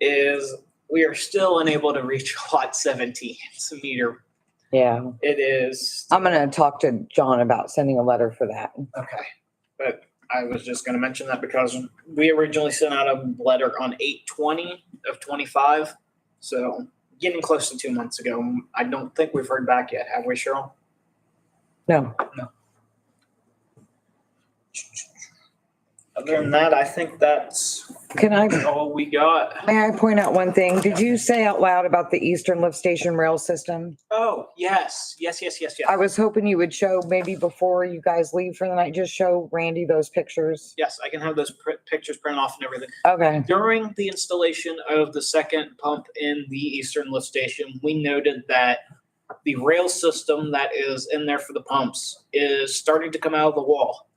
is we are still unable to reach lot seventeen. It's a meter. Yeah, It is, I'm gonna talk to John about sending a letter for that. okay. But I was just gonna mention that because we originally sent out a letter on eight twenty of twenty-five. So getting close to two months ago. I don't think we've heard back yet, have we, Cheryl? No, Other than that, I think that's can I, all we got. may I point out one thing? Did you say out loud about the Eastern Lift Station rail system? Oh, yes, yes, yes, yes, I yes. was hoping you would show, maybe before you guys leave for the night, just show Randy those pictures. Yes, I can have those pr- pictures printed off and everything. Okay, During the installation of the second pump in the eastern lift station, we noted that the rail system that is in there for the pumps is starting to come out of the wall.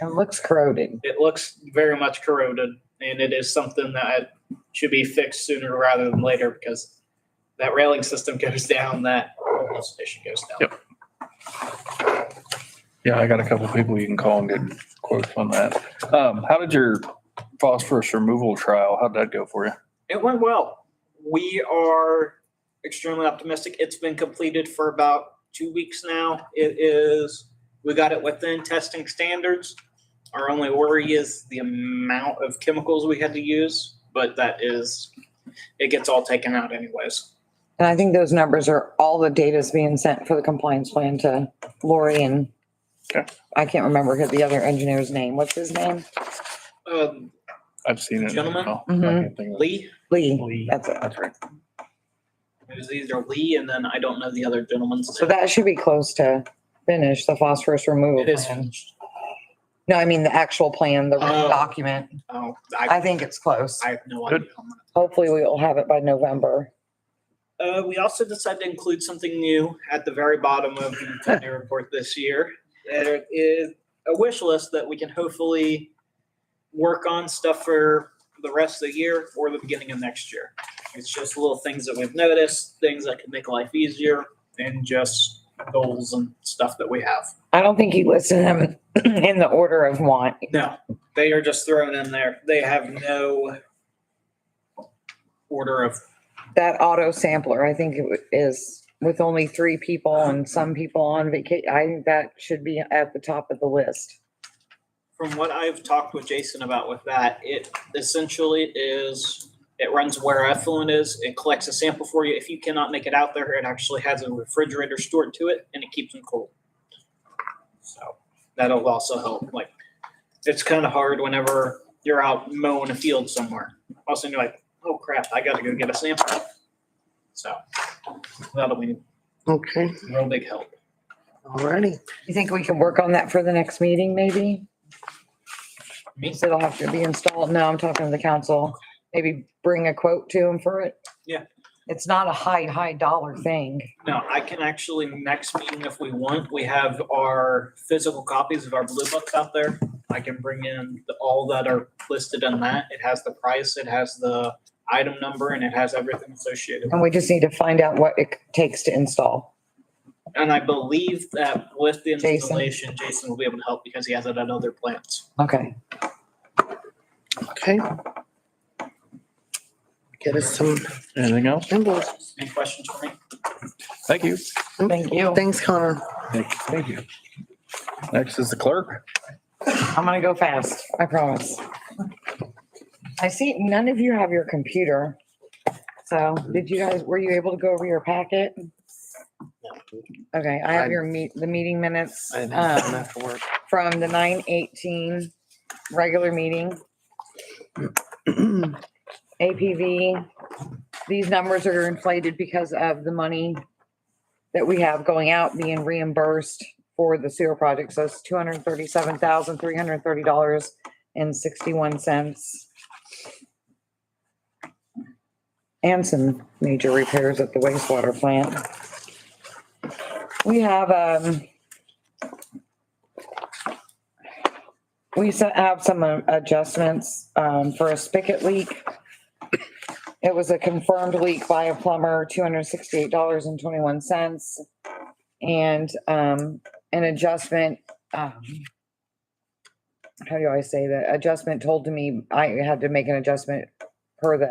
it looks corroded. It looks very much corroded, and it is something that should be fixed sooner rather than later because that railing system goes down, that whole lift station goes down. Yep. Yeah, I got a couple of people you can call and get quotes on that. Um, how did your phosphorus removal trial, how'd that go for you? It went well. We are extremely optimistic. It's been completed for about two weeks now. It is, we got it within testing standards. Our only worry is the amount of chemicals we had to use, but that is, it gets all taken out anyways. And I think those numbers are all the data's being sent for the compliance plan to Lori and Okay. I can't remember who the other engineer's name. What's his name? Um, I've seen it. Oh, Gentlemen? Mhm. Gentlemen? Lee, Lee. That's it. That's right. it was either Lee and then I don't know the other gentleman's. So that should be close to finish the phosphorus removal It is plan. finished. No, I mean the actual plan, the Oh. written document. Oh, I I, think it's close. I have no Good. idea. on that. Hopefully we will have it by November. Uh, we also decided to include something new at the very bottom of the tenure report this year. There is a wish list that we can hopefully work on stuff for the rest of the year or the beginning of next year. It's just little things that we've noticed, things that could make life easier, and just goals and stuff that we have. I don't think you listed them in the order of want. No, they are just thrown in there. They have no order of That auto sampler, I think it wa- is with only three people and some people on vacation. I think that should be at the top of the list. from what I've talked with Jason about with that, it essentially is, it runs where effluent is, it collects a sample for you. If you cannot make it out there, it actually has a refrigerator stored to it and it keeps them cool. So that'll also help. Like, it's kind of hard whenever you're out mowing a field somewhere. All of a sudden you're like, oh crap, I gotta go get a sample. So that'll be Okay, a real big help. alrighty. You think we can work on that for the next meeting, maybe? Me? So It'll have to be installed. No, I'm talking to the council. Maybe bring a quote to him for it. Yeah. It's not a high, high dollar thing. No, I can actually, next meeting if we want, we have our physical copies of our blue books out there. I can bring in the- all that are listed in that. It has the price, it has the item number, and it has everything associated. And we just need to find out what it takes to install. And I believe that with the Jason. installation, Jason will be able to help because he has it at other plants. Okay. Okay. Get us some Anything else? invoices. Any questions for me? Thank you. Thank you. Thanks, Connor. Thank you. Next is the clerk. I'm gonna go fast, I promise. I see none of you have your computer. So did you guys, were you able to go over your packet? Okay, I have your meet, the meeting minutes. I didn't have um, time after work. From the nine eighteen regular meeting, APV. These numbers are inflated because of the money that we have going out being reimbursed for the sewer project. So it's two hundred thirty-seven thousand, three hundred thirty dollars and sixty-one cents. And some major repairs at the wastewater plant. We have, um, we se- have some uh, adjustments, um, for a spigot leak. It was a confirmed leak by a plumber, two hundred sixty-eight dollars and twenty-one cents. And, um, an adjustment, um, how do I say that? Adjustment told to me, I had to make an adjustment per the